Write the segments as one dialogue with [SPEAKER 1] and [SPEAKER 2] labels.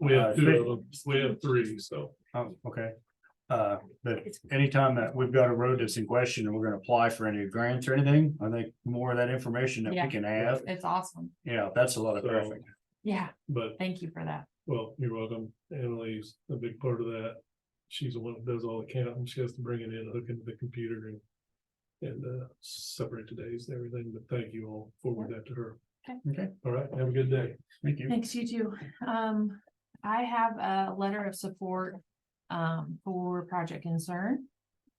[SPEAKER 1] We
[SPEAKER 2] Uh,
[SPEAKER 1] have two of them, we have three, so.
[SPEAKER 2] Oh, okay. Uh, but anytime that we've got a road that's in question and we're gonna apply for any grants or anything, I think more of that information that
[SPEAKER 3] Yeah.
[SPEAKER 2] we can have,
[SPEAKER 3] It's awesome.
[SPEAKER 2] yeah, that's a lot of traffic.
[SPEAKER 3] Yeah,
[SPEAKER 1] But,
[SPEAKER 3] thank you for that.
[SPEAKER 1] well, you're welcome. Annalise, a big part of that. She's the one that does all the counting. She has to bring it in, hook into the computer and. And uh, separate the days and everything, but thank you all. Forward that to her.
[SPEAKER 3] Okay.
[SPEAKER 2] Okay.
[SPEAKER 1] All right, have a good day.
[SPEAKER 2] Thank you.
[SPEAKER 3] Thanks, you too. Um, I have a letter of support um for Project Concern.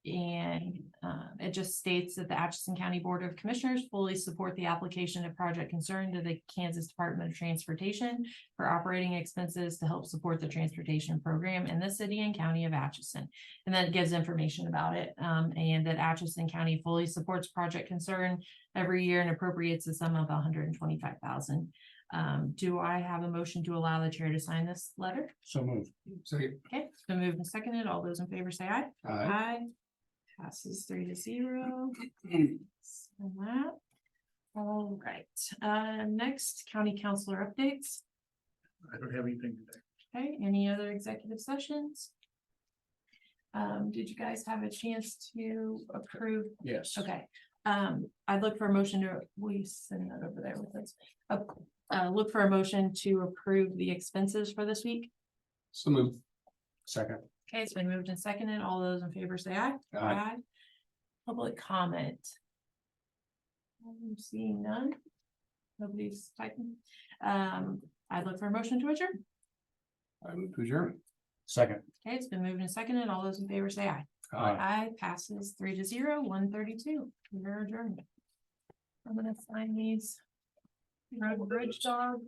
[SPEAKER 3] And uh, it just states that the Atchison County Board of Commissioners fully support the application of Project Concern to the Kansas Department of Transportation for operating expenses to help support the transportation program in the city and county of Atchison. And then it gives information about it, um, and that Atchison County fully supports Project Concern every year and appropriates a sum of hundred and twenty-five thousand Um, do I have a motion to allow the chair to sign this letter?
[SPEAKER 2] So uh, move. Second.
[SPEAKER 3] Okay, it's been moved and seconded. All those in favor say aye. Aye. Passes three to zero. So that. All right, uh, next county councilor updates.
[SPEAKER 1] I don't have anything today.
[SPEAKER 3] Okay, any other executive sessions? Um, did you guys have a chance to approve
[SPEAKER 2] Yes.
[SPEAKER 3] Okay, um, I'd look for a motion to, will you send that over there with us? Uh, Uh, look for a motion to approve the expenses for this week.
[SPEAKER 2] So move. Second.
[SPEAKER 3] Okay, it's been moved and seconded. All those in favor say aye.
[SPEAKER 2] Aye.
[SPEAKER 3] Public comment. I'm seeing none. Nobody's typing. Um, I'd look for a motion to adjourn.
[SPEAKER 2] I move to adjourn. Second.
[SPEAKER 3] Okay, it's been moved and seconded. All those in favor say aye. Aye passes three to zero, one thirty-two. We're adjourned. I'm gonna sign these. Road and Bridge Dog.